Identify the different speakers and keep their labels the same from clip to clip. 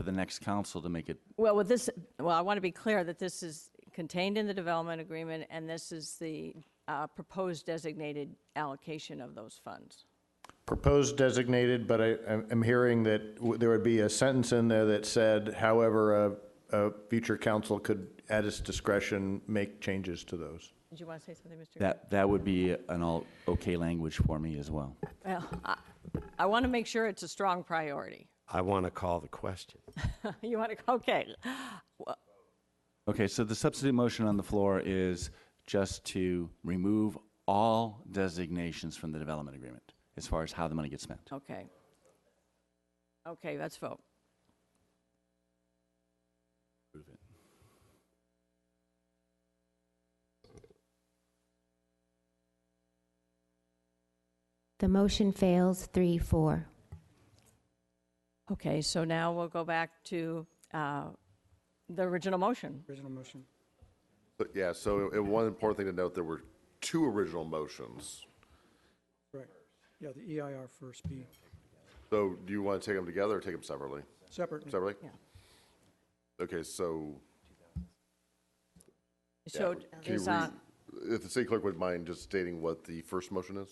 Speaker 1: the next council to make it,
Speaker 2: Well, with this, well, I want to be clear that this is contained in the development agreement, and this is the uh, proposed designated allocation of those funds.
Speaker 3: Proposed designated, but I, I'm- I'm hearing that w- there would be a sentence in there that said, however, a, a future council could, at its discretion, make changes to those.
Speaker 2: Did you want to say something, Mr.?
Speaker 1: that, that would be an all, okay language for me as well.
Speaker 2: Well, I- I want to make sure it's a strong priority.
Speaker 4: I want to call the question.
Speaker 2: You want to, okay.
Speaker 1: Okay, so the substitute motion on the floor is just to remove all designations from the development agreement as far as how the money gets spent.
Speaker 2: Okay. Okay, let's vote.
Speaker 5: The motion fails three, four.
Speaker 2: Okay, so now we'll go back to uh, the original motion.
Speaker 6: Original motion.
Speaker 7: But yeah, so and one important thing to note, there were two original motions.
Speaker 6: Right. Yeah, the EIR first be
Speaker 7: So do you want to take them together or take them separately?
Speaker 6: separate.
Speaker 7: Separately?
Speaker 2: Yeah.
Speaker 7: Okay, so
Speaker 2: So
Speaker 7: can you
Speaker 2: is, uh,
Speaker 7: read, if the city clerk would mind just stating what the first motion is?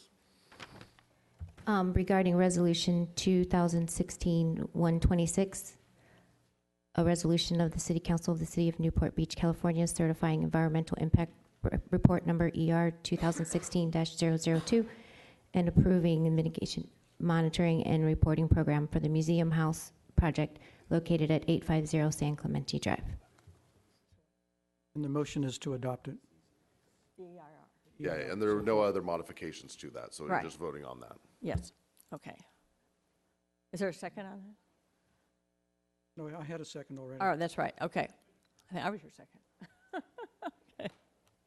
Speaker 5: Um, regarding resolution 2016-126, a resolution of the City Council of the City of Newport Beach, California certifying environmental impact r- report number ER 2016-002 and approving the mitigation monitoring and reporting program for the Museum House project located at 850 San Clemente Drive.
Speaker 6: And the motion is to adopt it. E
Speaker 7: Yeah, and there are no other modifications to that, so you're
Speaker 2: Right.
Speaker 7: just voting on that.
Speaker 2: yes, okay. Is there a second on that?
Speaker 6: No, I had a second already.
Speaker 2: Oh, that's right, okay. I think I was your second.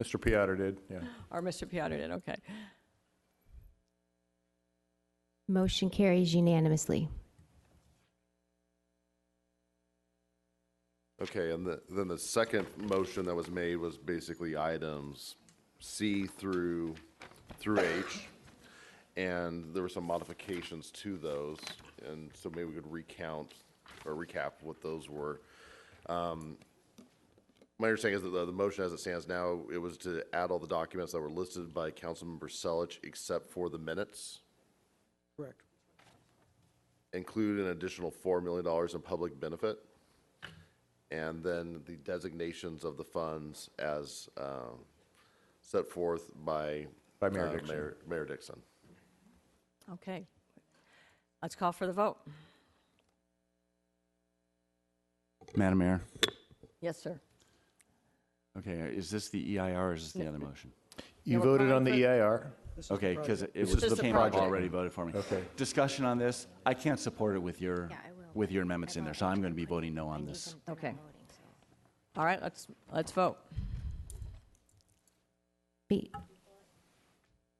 Speaker 3: Mr. Piattar did, yeah.
Speaker 2: Or Mr. Piotr did, okay.
Speaker 5: Motion carries unanimously.
Speaker 7: Okay, and the, then the second motion that was made was basically items C through, through H. And there were some modifications to those, and so maybe we could recount or recap what those were. Um, My understanding is that the, the motion as it stands now, it was to add all the documents that were listed by Councilmember Selich except for the minutes
Speaker 6: Correct.
Speaker 7: include an additional $4 million in public benefit, and then the designations of the funds as um, set forth by.
Speaker 3: By Mayor
Speaker 7: uh,
Speaker 3: Dixon.
Speaker 7: Mayor- Mayor Dixon.
Speaker 2: Okay. Let's call for the vote.
Speaker 1: Madam Mayor?
Speaker 2: Yes, sir.
Speaker 1: Okay, is this the EIR or is this the other motion?
Speaker 3: You
Speaker 2: we're
Speaker 3: voted
Speaker 2: calling
Speaker 3: on the E
Speaker 2: for-
Speaker 3: EIR?
Speaker 6: This is the
Speaker 1: Okay, because
Speaker 6: project.
Speaker 1: it was,
Speaker 2: is
Speaker 1: it
Speaker 2: the
Speaker 1: came up
Speaker 2: project.
Speaker 1: already voted for me.
Speaker 3: Okay.
Speaker 1: Discussion on this, I can't support it with your,
Speaker 5: Yeah, I will.
Speaker 1: with your amendments in there, so I'm going to be voting no on this.
Speaker 2: Okay. All right, let's, let's vote.
Speaker 5: Be-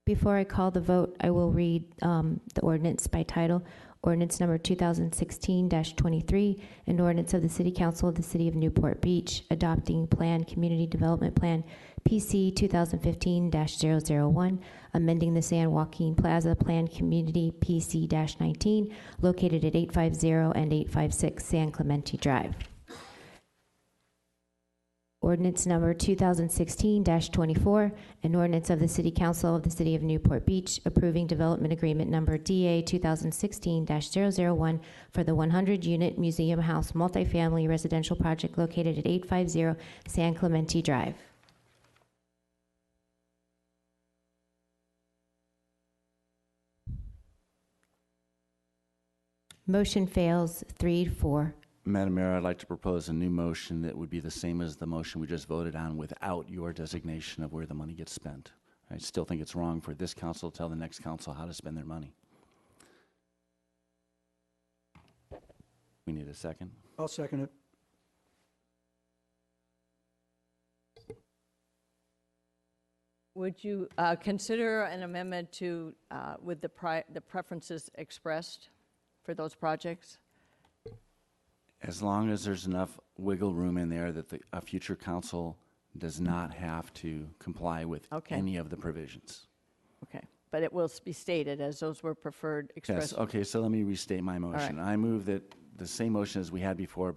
Speaker 5: Before I call the vote, I will read um, the ordinance by title. Ordinance number 2016-23, an ordinance of the City Council of the City of Newport Beach adopting Plan Community Development Plan PC 2015-001, amending the San Joaquin Plaza Plan Community PC-19, located at 850 and 856 San Clemente Drive. Ordinance number 2016-24, an ordinance of the City Council of the City of Newport Beach approving development agreement number DA 2016-001 for the 100-unit Museum House multifamily residential project located at 850 San Clemente Drive. Motion fails 3-4.
Speaker 1: Madam Mayor, I'd like to propose a new motion that would be the same as the motion we just voted on without your designation of where the money gets spent. I still think it's wrong for this council to tell the next council how to spend their money. We need a second.
Speaker 6: I'll second it.
Speaker 2: Would you uh, consider an amendment to, uh, with the pri, the preferences expressed for those projects?
Speaker 1: As long as there's enough wiggle room in there that the, a future council does not have to comply with
Speaker 2: Okay.
Speaker 1: any of the provisions.
Speaker 2: Okay, but it will be stated as those were preferred, expressed
Speaker 1: Yes, okay, so let me restate my motion. I move that the same motion as we had before,